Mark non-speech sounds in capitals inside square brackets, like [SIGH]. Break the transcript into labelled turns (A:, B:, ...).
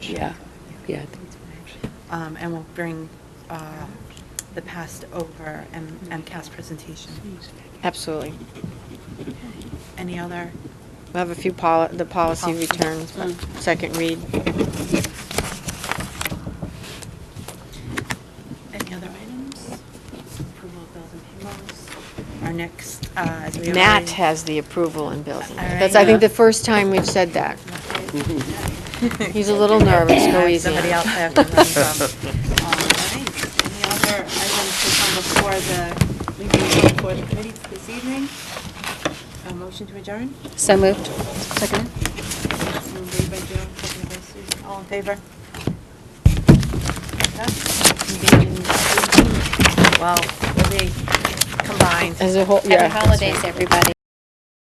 A: Yeah, yeah. I think it's March.
B: Um, and we'll bring uh, the past over and MCAS presentation.
C: Absolutely.
B: Any other?
C: We'll have a few poli, the
B: Policy.
C: policy
B: Hmm.
C: returns, but second read.
B: Any other items? Approval of bills and payrolls. Our next, uh, as we.
C: Matt
B: already-
C: has the approval in building.
B: All right.
C: That's, I think, the first time we've said
B: [LAUGHS]
C: that. He's a little nervous, go
B: Have
C: easy.
B: Somebody else I have to learn
C: [LAUGHS]
B: from. Um, All right. Any other items to come before the, we meet before the committee this evening? A motion to adjourn?
A: So moved. Second.
B: Moved by Joan, seconded by Susan. All in favor? Well, we'll be combined.
C: As a whole, yeah.
A: Happy holidays, everybody.